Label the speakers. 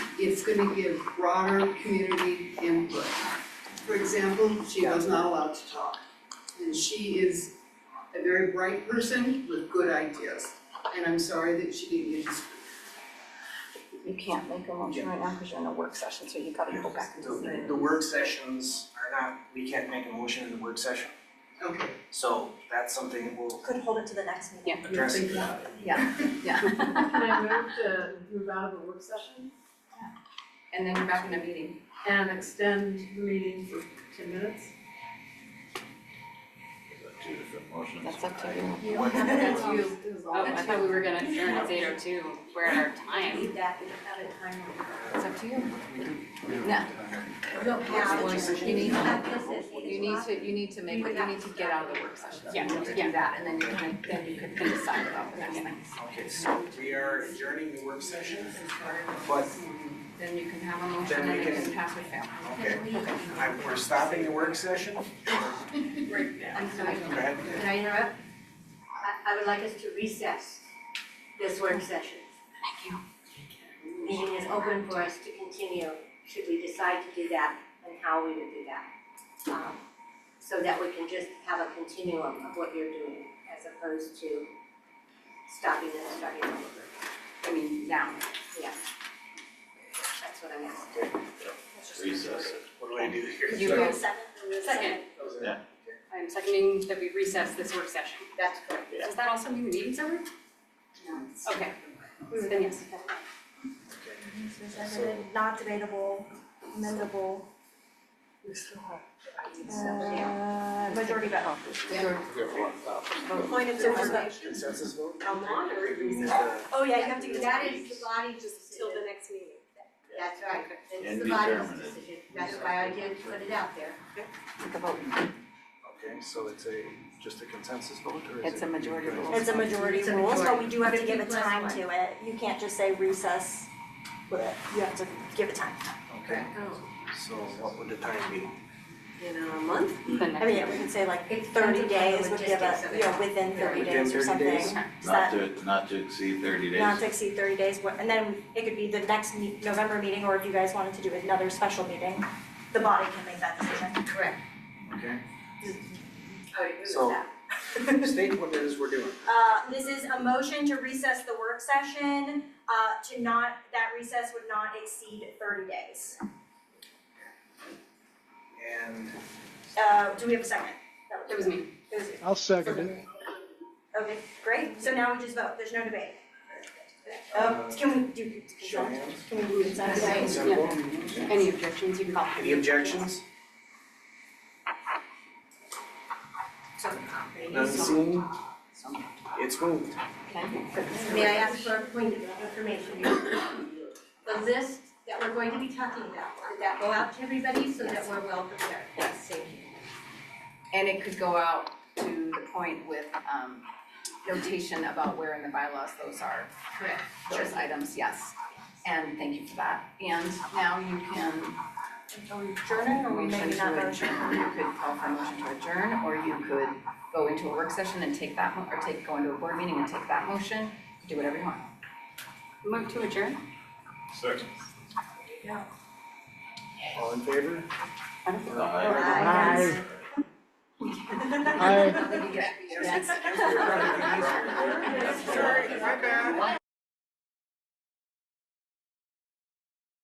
Speaker 1: it's gonna give broader community input. For example, she was not allowed to talk, and she is a very bright person with good ideas, and I'm sorry that she didn't get to speak.
Speaker 2: You can't make a motion right now because you're in a work session, so you gotta go back and see.
Speaker 3: The, the work sessions are not, we can't make a motion in the work session,
Speaker 1: Okay,
Speaker 3: so that's something that we'll
Speaker 4: Could hold it to the next meeting.
Speaker 1: you're
Speaker 3: address.
Speaker 1: thinking about it.
Speaker 5: Can I move to move out of a work session
Speaker 2: And then you're back in a meeting.
Speaker 5: and extend the meeting for ten minutes?
Speaker 6: Two different motions.
Speaker 2: That's up to you.
Speaker 4: You
Speaker 3: don't have to
Speaker 5: That's
Speaker 4: have
Speaker 5: you.
Speaker 7: Oh, I thought we were gonna adjourn at eight oh two, we're at our
Speaker 4: to
Speaker 7: time.
Speaker 4: leave that, you don't have a time.
Speaker 2: It's up to you.
Speaker 4: No,
Speaker 2: Yeah, you need to,
Speaker 4: this is
Speaker 2: you need to, you need to make, you need to get out of the work session.
Speaker 7: Yeah,
Speaker 2: You need to
Speaker 7: yeah.
Speaker 2: do that and then you can, then you can decide about the next thing.
Speaker 3: Okay, so we are adjourning the work session, but,
Speaker 2: Then you can have a motion
Speaker 3: Then we
Speaker 2: and it
Speaker 3: can-
Speaker 2: can pass or fail.
Speaker 3: okay, I, we're stopping the work session?
Speaker 8: I'm sorry,
Speaker 3: Go ahead.
Speaker 8: can I interrupt? I, I would like us to recess this work session. Thank you. Meeting is open for us to continue, should we decide to do that, and how we would do that. Um, So that we can just have a continuum of what you're doing, as opposed to stopping and starting over.
Speaker 2: I mean, now.
Speaker 8: That's what I'm asking.
Speaker 6: Recess.
Speaker 3: What do I do here?
Speaker 2: You go.
Speaker 7: Second, I'm seconding that we recess this work session.
Speaker 8: That's correct.
Speaker 7: Does that also mean the meeting's over?
Speaker 8: No.
Speaker 7: Okay, then yes.
Speaker 4: Not debatable, amendable,
Speaker 2: You still have.
Speaker 4: uh, majority vote. Point of
Speaker 3: Consensus- Consensus vote?
Speaker 7: How long are we
Speaker 4: Oh, yeah, you have to get.
Speaker 8: That is the body's decision.
Speaker 7: next meeting.
Speaker 8: That's right,
Speaker 6: And
Speaker 8: it's the body's
Speaker 6: determinate.
Speaker 8: decision, that's why I did put it out there.
Speaker 2: Take a vote.
Speaker 3: Okay, so it's a, just a consensus vote, or is
Speaker 2: It's a majority vote.
Speaker 4: It's a majority
Speaker 8: It's a
Speaker 4: rule, so
Speaker 8: majority.
Speaker 4: we do have to give a
Speaker 8: 50 plus
Speaker 4: time
Speaker 8: one.
Speaker 4: to it. You can't just say recess, but you have to give it time.
Speaker 3: Okay,
Speaker 8: Oh.
Speaker 3: so what would the time be?
Speaker 7: In a month? The
Speaker 4: I
Speaker 7: next.
Speaker 4: mean, we could say like
Speaker 8: It
Speaker 4: thirty
Speaker 8: depends upon the
Speaker 4: days would give
Speaker 8: logistics of
Speaker 4: a,
Speaker 8: it.
Speaker 4: you know, within thirty days or
Speaker 3: Within 30
Speaker 4: something.
Speaker 3: days?
Speaker 4: Is
Speaker 6: Not
Speaker 4: that-
Speaker 6: to, not to exceed thirty days.
Speaker 4: not to exceed thirty days, what- and then it could be the next me- November meeting, or if you guys wanted to do another special meeting, the body can make that decision.
Speaker 8: Correct.
Speaker 3: Okay,
Speaker 8: I would Oh, agree with
Speaker 3: So-
Speaker 8: that.
Speaker 3: state what it is we're doing.
Speaker 4: Uh, this is a motion to recess the work session, uh, to not, that recess would not exceed thirty days.
Speaker 3: And
Speaker 4: Uh, do we have a second? That
Speaker 7: It was me.
Speaker 4: It was you.
Speaker 9: I'll second it.
Speaker 4: Okay, great, so now we just vote, there's no debate. Uh, can we do,
Speaker 3: show hands,
Speaker 4: can we do consent?
Speaker 8: Okay.
Speaker 3: consent vote?
Speaker 7: Any objections, you can call.
Speaker 3: Any objections? None seen? It's moved.
Speaker 8: May I ask for a point of information? The list that we're going to be talking about, did that go out to everybody so that we're well prepared?
Speaker 2: Yes.
Speaker 8: Thank you.
Speaker 2: And it could go out to the point with um notation about where in the bylaws those are,
Speaker 8: Correct.
Speaker 2: those items, yes. And thank you for that. And now you can
Speaker 4: Are we adjourning, or we
Speaker 2: motion
Speaker 4: maybe not
Speaker 2: to
Speaker 4: motion?
Speaker 2: adjourn. You could call for a motion to adjourn, or you could go into a work session and take that, mo- or take, go into a board meeting and take that motion, do whatever you want.
Speaker 7: Move to adjourn?
Speaker 6: Second.
Speaker 3: All in favor?
Speaker 2: I don't think.
Speaker 9: Aye. Aye.
Speaker 2: Yes.
Speaker 3: Yes. My bad.